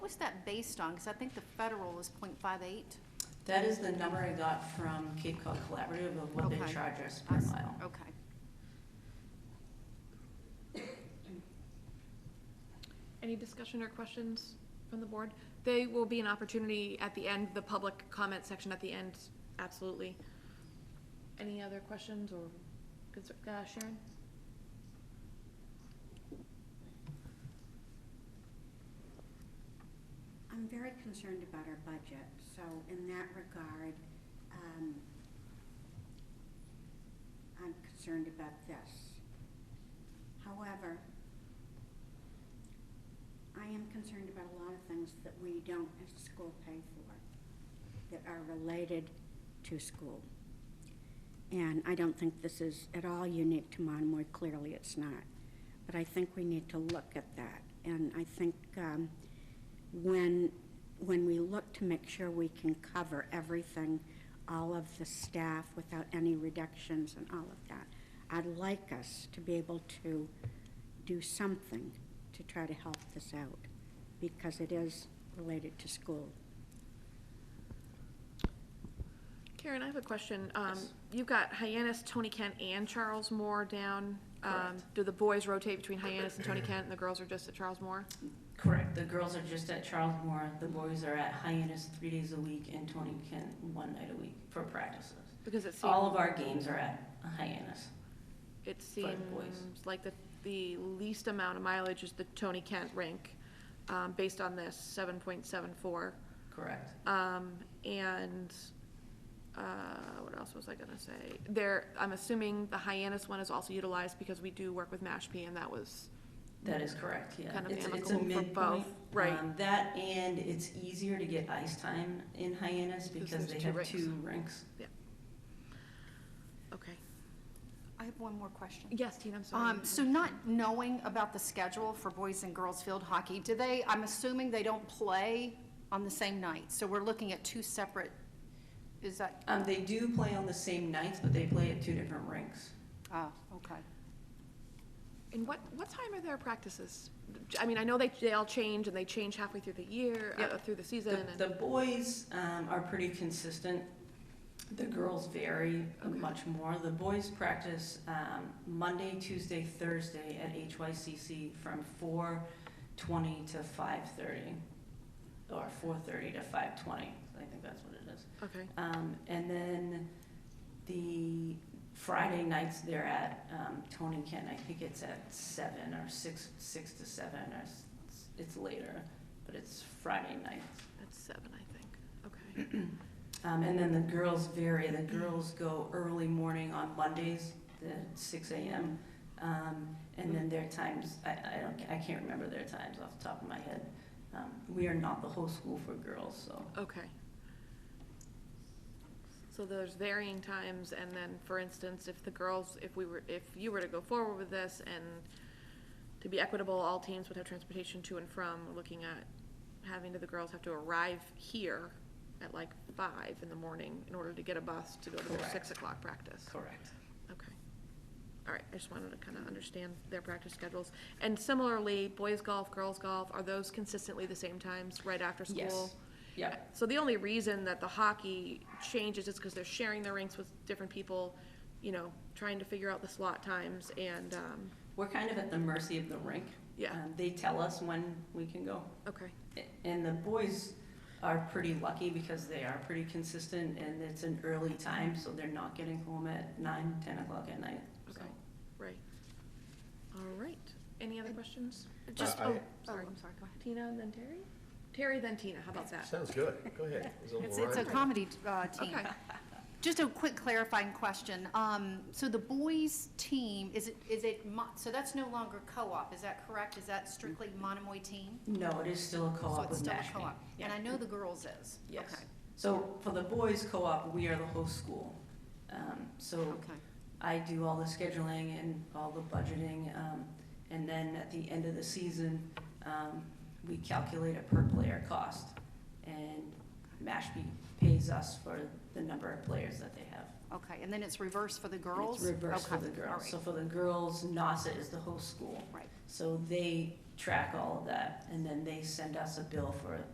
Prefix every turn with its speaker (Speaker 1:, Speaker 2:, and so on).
Speaker 1: was that based on? Because I think the federal is 0.58.
Speaker 2: That is the number I got from Cape Cod Collaborative of what they
Speaker 1: Okay.
Speaker 2: charge us
Speaker 1: I
Speaker 2: per
Speaker 1: s-
Speaker 2: mile.
Speaker 1: Okay.
Speaker 3: Any discussion or questions from the board? They will be an opportunity at the end, the public comment section at the end, absolutely. Any other questions or, concer- uh, Sharon?
Speaker 4: I'm very concerned about our budget, so in that regard, um, I'm concerned about this. However, I am concerned about a lot of things that we don't as a school pay for, that are related to school. And I don't think this is at all unique to Monomoy, clearly it's not. But I think we need to look at that. And I think, um, when, when we look to make sure we can cover everything, all of the staff without any reductions and all of that, I'd like us to be able to do something to try to help this out, because it is related to school.
Speaker 3: Karen, I have a question. Um,
Speaker 2: Yes.
Speaker 3: you've got Hyannis, Tony Kent, and Charles Moore down. Um,
Speaker 2: Correct.
Speaker 3: do the boys rotate between Hyannis and Tony Kent, and the girls are just at Charles Moore?
Speaker 2: Correct, the girls are just at Charles Moore, the boys are at Hyannis three days a week and Tony Kent one night a week for practices.
Speaker 3: Because it
Speaker 2: All
Speaker 3: seems,
Speaker 2: of our games are at Hyannis.
Speaker 3: it
Speaker 2: for the boys.
Speaker 3: seems like the, the least amount of mileage is the Tony Kent rink, um, based on this, seven point seven four.
Speaker 2: Correct.
Speaker 3: Um, and, uh, what else was I gonna say? There, I'm assuming the Hyannis one is also utilized because we do work with Mashpee and that was,
Speaker 2: That is correct, yeah.
Speaker 3: Kind of
Speaker 2: It's- it's a
Speaker 3: amicable for both,
Speaker 2: midpoint.
Speaker 3: right.
Speaker 2: Um, That and it's easier to get ice time in Hyannis because
Speaker 3: there's
Speaker 2: they
Speaker 3: two
Speaker 2: have
Speaker 3: rinks.
Speaker 2: two rinks.
Speaker 3: okay.
Speaker 1: I have one more question.
Speaker 3: Yes, Tina, I'm sorry.
Speaker 1: Um, so not knowing about the schedule for boys and girls field hockey, do they, I'm assuming they don't play on the same night? So we're looking at two separate, is that,
Speaker 2: Um, they do play on the same nights, but they play at two different rinks.
Speaker 1: oh, okay.
Speaker 3: And what, what time are their practices? I mean, I know they, they all change and they change halfway through the year, uh,
Speaker 2: Yep.
Speaker 3: through the season
Speaker 2: The,
Speaker 3: and.
Speaker 2: the boys, um, are pretty consistent. The girls vary
Speaker 3: Okay.
Speaker 2: much more. The boys practice, um, Monday, Tuesday, Thursday at HYCC from four twenty to five thirty. Or four thirty to five twenty, I think that's what it is.
Speaker 3: Okay,
Speaker 2: Um, and then the Friday nights they're at, um, Tony Kent, I think it's at seven or six, six to seven or s- it's later, but it's Friday nights.
Speaker 3: that's seven, I think, okay.
Speaker 2: Um, and then the girls vary. The girls go early morning on Mondays, the six AM. Um, and then their times, I, I don't, I can't remember their times off the top of my head. Um, we are not the whole school for girls, so.
Speaker 3: Okay. So there's varying times, and then, for instance, if the girls, if we were, if you were to go forward with this, and to be equitable, all teams would have transportation to and from, we're looking at having to, the girls have to arrive here at like five in the morning in order to get a bus to go to their
Speaker 2: Correct.
Speaker 3: six o'clock practice.
Speaker 2: Correct.
Speaker 3: Okay. All right, I just wanted to kind of understand their practice schedules. And similarly, boys golf, girls golf, are those consistently the same times, right after school?
Speaker 2: Yes. Yep.
Speaker 3: So the only reason that the hockey changes is because they're sharing their rinks with different people, you know, trying to figure out the slot times and, um,
Speaker 2: We're kind of at the mercy of the rink.
Speaker 3: Yeah.
Speaker 2: Um, They tell us when we can go.
Speaker 3: okay,
Speaker 2: A- And the boys are pretty lucky because they are pretty consistent and it's an early time, so they're not getting home at nine, ten o'clock at night. so.
Speaker 3: Okay. right. All right, any other questions?
Speaker 1: Just,
Speaker 5: I-
Speaker 1: oh, oh,
Speaker 3: sorry.
Speaker 1: I'm sorry, go ahead.
Speaker 3: Tina and then Terry? Terry then Tina, how about that?
Speaker 5: Sounds good, go ahead. It's
Speaker 1: It's, it's a comedy uh, team.
Speaker 3: Okay,
Speaker 1: Just a quick clarifying question. Um, so the boys' team, is it, is it, mo- so that's no longer co-op, is that correct? Is that strictly Monomoy team?
Speaker 2: No, it is still a
Speaker 1: So
Speaker 2: co-op
Speaker 1: it's
Speaker 2: with
Speaker 1: still a
Speaker 2: Mashpee.
Speaker 1: co-op.
Speaker 2: Yeah.
Speaker 1: And I know the girls is.
Speaker 2: Yes.
Speaker 1: Okay.
Speaker 2: So for the boys' co-op, we are the whole school. Um, so
Speaker 1: Okay.
Speaker 2: I do all the scheduling and all the budgeting, um, and then at the end of the season, um, we calculate a per player cost. And Mashpee pays us for the number of players that they have.
Speaker 1: Okay, and then it's reverse for the
Speaker 2: And
Speaker 1: girls?
Speaker 2: It's reversed for
Speaker 1: Okay,
Speaker 2: the
Speaker 1: all
Speaker 2: girls.
Speaker 1: right,
Speaker 2: So for the girls, NASA is the whole school.
Speaker 1: Right,
Speaker 2: So they track all of that, and then they send us a bill for it.